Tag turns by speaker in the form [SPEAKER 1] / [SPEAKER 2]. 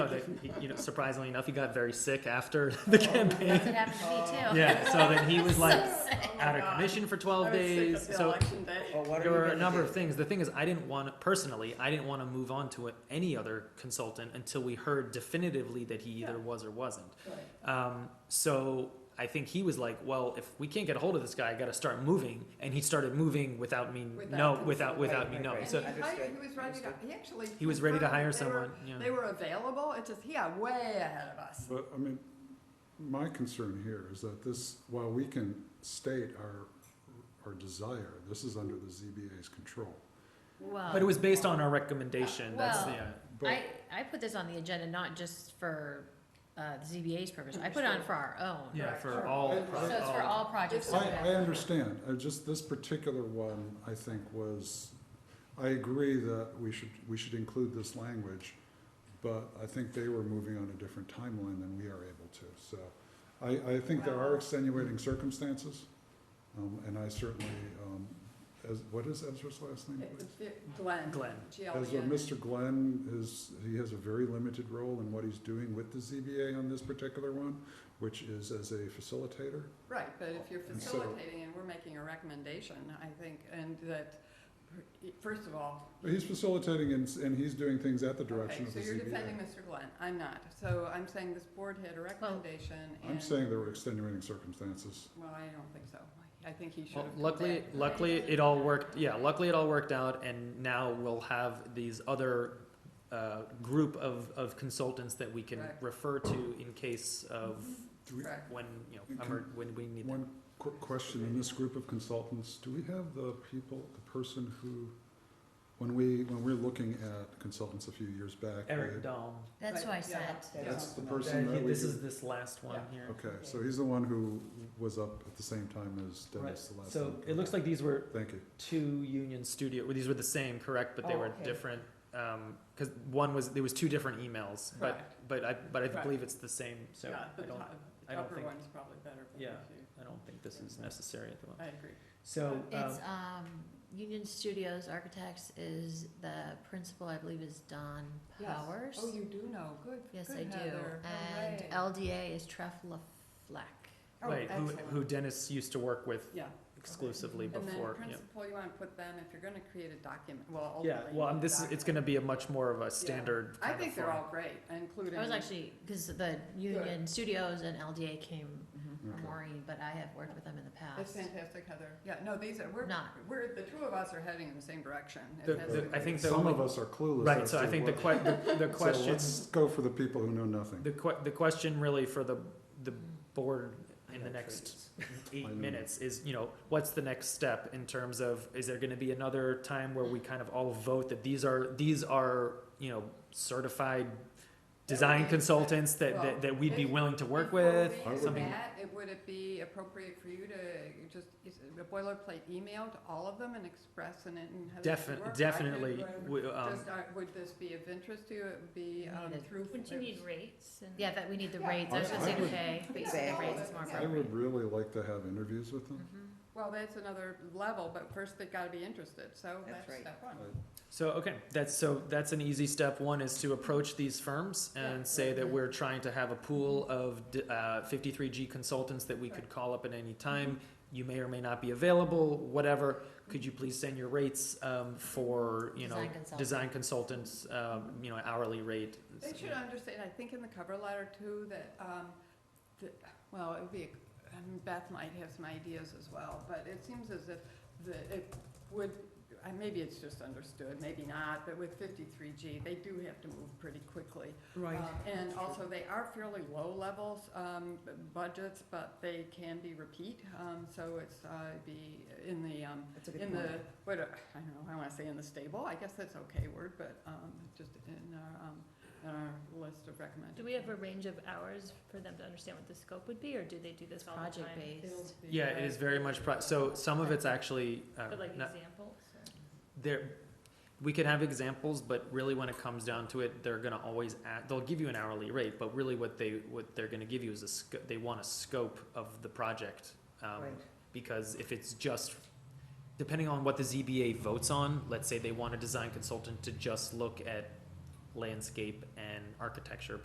[SPEAKER 1] he- Oh, you know, surprisingly enough, he got very sick after the campaign.
[SPEAKER 2] That's what happened to me too.
[SPEAKER 1] Yeah, so then he was like
[SPEAKER 2] So
[SPEAKER 3] Oh,
[SPEAKER 2] sick.
[SPEAKER 1] out of commission for
[SPEAKER 3] I
[SPEAKER 1] twelve
[SPEAKER 3] was sick
[SPEAKER 1] days.
[SPEAKER 3] of the
[SPEAKER 1] So
[SPEAKER 3] election day.
[SPEAKER 4] Well, what are
[SPEAKER 1] there
[SPEAKER 4] you
[SPEAKER 1] were a
[SPEAKER 4] gonna
[SPEAKER 1] number
[SPEAKER 4] do?
[SPEAKER 1] of things. The thing is, I didn't want personally, I didn't want to move on to any other consultant until we heard definitively that he either
[SPEAKER 3] Yeah.
[SPEAKER 1] was or wasn't.
[SPEAKER 3] Right.
[SPEAKER 1] Um, so I think he was like, well, if we can't get a hold of this guy, I got to start moving, and he started moving without me
[SPEAKER 3] Without
[SPEAKER 1] no,
[SPEAKER 3] consult-
[SPEAKER 1] without without
[SPEAKER 4] Right,
[SPEAKER 1] me
[SPEAKER 4] right,
[SPEAKER 1] knowing.
[SPEAKER 4] right.
[SPEAKER 1] So
[SPEAKER 3] And he hired,
[SPEAKER 4] Understood,
[SPEAKER 3] he was ready to,
[SPEAKER 4] understood.
[SPEAKER 3] he actually.
[SPEAKER 1] he was ready to
[SPEAKER 3] confirmed
[SPEAKER 1] hire
[SPEAKER 3] that they were-
[SPEAKER 1] someone. yeah.
[SPEAKER 3] They were available, it's just, yeah, way ahead of us.
[SPEAKER 5] But, I mean, my concern here is that this, while we can state our, our desire, this is under the ZBA's control.
[SPEAKER 2] Whoa.
[SPEAKER 1] But it was based
[SPEAKER 3] um,
[SPEAKER 1] on our recommendation. That's
[SPEAKER 2] Well,
[SPEAKER 1] yeah.
[SPEAKER 5] But,
[SPEAKER 2] I, I put this on the agenda not just for uh, the ZBA's purpose, I put it on for our own.
[SPEAKER 1] Yeah,
[SPEAKER 3] Right.
[SPEAKER 1] for all.
[SPEAKER 5] I-
[SPEAKER 2] So it's for all projects.
[SPEAKER 5] I,
[SPEAKER 2] so that-
[SPEAKER 5] I understand, I just, this particular one, I think was, I agree that we should, we should include this language, but I think they were moving on a different timeline than we are able to, so. I, I think there are extenuating circumstances, um, and I certainly, um, as, what is Ezra's last name,
[SPEAKER 3] It
[SPEAKER 5] please?
[SPEAKER 3] was Vic- Glenn. E
[SPEAKER 1] Glenn.
[SPEAKER 3] GLN.
[SPEAKER 5] As of Mr. Glenn is, he has a very limited role in what he's doing with the ZBA on this particular one, which is as a facilitator.
[SPEAKER 3] Right, but if you're
[SPEAKER 5] And so-
[SPEAKER 3] facilitating and we're making a recommendation, I think, and that, first of all.
[SPEAKER 5] He's facilitating and, and he's doing things at the
[SPEAKER 3] Okay,
[SPEAKER 5] direction of
[SPEAKER 3] so
[SPEAKER 5] the
[SPEAKER 3] you're defending
[SPEAKER 5] ZBA.
[SPEAKER 3] Mr. Glenn, I'm not, so I'm saying this board had a recommendation and.
[SPEAKER 5] I'm saying there were extenuating circumstances.
[SPEAKER 3] Well, I don't think so, I think he should
[SPEAKER 1] Well,
[SPEAKER 3] have. come
[SPEAKER 1] luckily,
[SPEAKER 3] back.
[SPEAKER 1] luckily it all worked. Yeah, luckily it all worked out, and now we'll have these other uh, group of, of consultants that we can
[SPEAKER 3] Right.
[SPEAKER 1] refer to in case of
[SPEAKER 5] Do we,
[SPEAKER 3] Correct.
[SPEAKER 1] when you know
[SPEAKER 5] You can-
[SPEAKER 1] emer- when we need them.
[SPEAKER 5] one quick question, in this group of consultants, do we have the people, the person who, when we, when we're looking at consultants a few years back?
[SPEAKER 1] Eric
[SPEAKER 5] we-
[SPEAKER 1] Dahm.
[SPEAKER 2] That's what I
[SPEAKER 3] Right, yeah.
[SPEAKER 2] said.
[SPEAKER 5] That's the
[SPEAKER 4] Yeah.
[SPEAKER 5] person that we
[SPEAKER 1] This
[SPEAKER 5] do.
[SPEAKER 1] is this last one here.
[SPEAKER 5] Okay, so he's the one who was up at the same time as
[SPEAKER 1] Right.
[SPEAKER 5] Dennis the last time.
[SPEAKER 1] So it looks like these were
[SPEAKER 5] Thank you.
[SPEAKER 1] two Union Studio. Well, these were the same, correct? But they
[SPEAKER 4] Oh,
[SPEAKER 1] were
[SPEAKER 4] okay.
[SPEAKER 1] different because one was there was two different emails.
[SPEAKER 3] Correct.
[SPEAKER 1] But but I but I
[SPEAKER 3] Correct.
[SPEAKER 1] believe it's the same. So
[SPEAKER 3] Yeah,
[SPEAKER 1] I
[SPEAKER 3] the
[SPEAKER 1] don't
[SPEAKER 3] top-
[SPEAKER 1] I don't
[SPEAKER 3] upper
[SPEAKER 1] think-
[SPEAKER 3] one's probably better. but
[SPEAKER 1] Yeah.
[SPEAKER 3] if you-
[SPEAKER 1] I don't think this is necessary at the moment.
[SPEAKER 3] I agree.
[SPEAKER 1] So um,
[SPEAKER 2] It's, um, Union Studios Architects is the principal, I believe is Don Powers.
[SPEAKER 3] Oh, you do know, good,
[SPEAKER 2] Yes,
[SPEAKER 3] good
[SPEAKER 2] I do.
[SPEAKER 3] Heather.
[SPEAKER 2] And
[SPEAKER 3] Hooray.
[SPEAKER 2] LDA is Treff LaFleck.
[SPEAKER 3] Oh,
[SPEAKER 1] right, who
[SPEAKER 3] excellent.
[SPEAKER 1] who Dennis used to work with
[SPEAKER 3] Yeah.
[SPEAKER 1] exclusively
[SPEAKER 3] And then
[SPEAKER 1] before. yeah.
[SPEAKER 3] principal, you wanna put them, if you're gonna create a document, well,
[SPEAKER 1] Yeah,
[SPEAKER 3] ultimately.
[SPEAKER 1] well,
[SPEAKER 3] you
[SPEAKER 1] um,
[SPEAKER 3] need
[SPEAKER 1] this is, it's gonna
[SPEAKER 3] document.
[SPEAKER 1] be a much more of a standard
[SPEAKER 3] I
[SPEAKER 1] kind of
[SPEAKER 3] think they're
[SPEAKER 1] form.
[SPEAKER 3] all great, including.
[SPEAKER 2] I was actually, because the Union Studios and LDA came
[SPEAKER 3] Mhm.
[SPEAKER 2] from
[SPEAKER 5] Okay.
[SPEAKER 2] Maureen, but I have worked with them in the
[SPEAKER 3] That's
[SPEAKER 2] past.
[SPEAKER 3] fantastic, Heather. Yeah, no, these are, we're,
[SPEAKER 2] Not.
[SPEAKER 3] we're, the two of us are heading in the same direction. It
[SPEAKER 1] The-
[SPEAKER 3] has
[SPEAKER 1] the-
[SPEAKER 3] been
[SPEAKER 1] I think the
[SPEAKER 5] Some
[SPEAKER 1] only-
[SPEAKER 5] of us are clueless.
[SPEAKER 1] Right,
[SPEAKER 5] as
[SPEAKER 1] so I
[SPEAKER 5] to
[SPEAKER 1] think the que-
[SPEAKER 5] what-
[SPEAKER 1] the- the
[SPEAKER 5] So
[SPEAKER 1] question,
[SPEAKER 5] let's go for the people who know nothing.
[SPEAKER 1] the que- the question really for the, the board in the
[SPEAKER 4] Yeah,
[SPEAKER 1] next
[SPEAKER 5] I
[SPEAKER 1] eight
[SPEAKER 5] know.
[SPEAKER 1] minutes is, you know, what's the next step in terms of, is there gonna be another time where we kind of all vote that these are, these are, you know, certified design
[SPEAKER 3] Okay.
[SPEAKER 1] consultants that,
[SPEAKER 3] Well,
[SPEAKER 1] that, that we'd be
[SPEAKER 3] if-
[SPEAKER 1] willing to work
[SPEAKER 3] Before
[SPEAKER 1] with?
[SPEAKER 3] we do
[SPEAKER 1] something-
[SPEAKER 3] that, it- would it be appropriate for you to just, is it a boilerplate email to all of them and express and, and how this should work? I
[SPEAKER 1] Defi-
[SPEAKER 3] could,
[SPEAKER 1] definitely,
[SPEAKER 3] uh,
[SPEAKER 1] we- um,
[SPEAKER 3] Just, uh, would this be of interest to you, It would be, um,
[SPEAKER 2] Needed.
[SPEAKER 3] through?
[SPEAKER 6] Would you need rates and?
[SPEAKER 2] Yeah, that we need the
[SPEAKER 3] Yeah.
[SPEAKER 2] rates, I was gonna
[SPEAKER 5] I
[SPEAKER 2] say
[SPEAKER 5] would-
[SPEAKER 2] pay, but yeah, the
[SPEAKER 4] Exactly.
[SPEAKER 2] rates is more
[SPEAKER 3] Yeah.
[SPEAKER 5] I
[SPEAKER 2] appropriate.
[SPEAKER 5] would really like to have interviews with them.
[SPEAKER 2] Mhm.
[SPEAKER 3] Well, that's another level, but first they've gotta be interested, so
[SPEAKER 4] That's
[SPEAKER 3] that's
[SPEAKER 4] right.
[SPEAKER 3] step one.
[SPEAKER 1] So, okay, that's, so that's an easy step. One is to approach these firms
[SPEAKER 3] Yeah.
[SPEAKER 1] and say that we're trying to have a pool of d- uh, 53G consultants that we could call up at
[SPEAKER 3] Mm-hmm.
[SPEAKER 1] any time. You may or may not be available, whatever. Could you please send your rates um, for, you know,
[SPEAKER 2] Design consultant.
[SPEAKER 1] design consultants, um, you know, hourly rate?
[SPEAKER 3] They should understand, I think in the cover letter too, that, um, that, well, it would be, I mean, Beth might have some ideas as well, but it seems as if the, it would, uh, maybe it's just understood, maybe not, but with fifty-three G, they do have to move pretty quickly.
[SPEAKER 4] Right.
[SPEAKER 3] Um, And also, they are fairly low levels, um, b- budgets, but they can be repeat, um, so it's, uh, be in the, um,
[SPEAKER 4] That's a good
[SPEAKER 3] in
[SPEAKER 4] point.
[SPEAKER 3] the, what, uh, I don't know, I wanna say in the stable, I guess that's okay word, but, um, just in our, um, in our list of recommended.
[SPEAKER 6] Do we have a range of hours for them to understand what the scope would be, or do they do this all the time?
[SPEAKER 2] Project
[SPEAKER 3] It'll
[SPEAKER 2] based.
[SPEAKER 3] be,
[SPEAKER 1] Yeah, it
[SPEAKER 3] uh,
[SPEAKER 1] is very much, pro- so some of it's actually, uh,
[SPEAKER 6] But like
[SPEAKER 1] not-
[SPEAKER 6] examples? or-
[SPEAKER 1] there we could have examples but really when it comes down to it they're going to always add, they'll give you an hourly rate but really what they what they're going to give you is a sc- they want a scope of the project um,
[SPEAKER 4] Right.
[SPEAKER 1] because if it's just depending on what the ZBA votes on let's say they want a design consultant to just look at landscape and architecture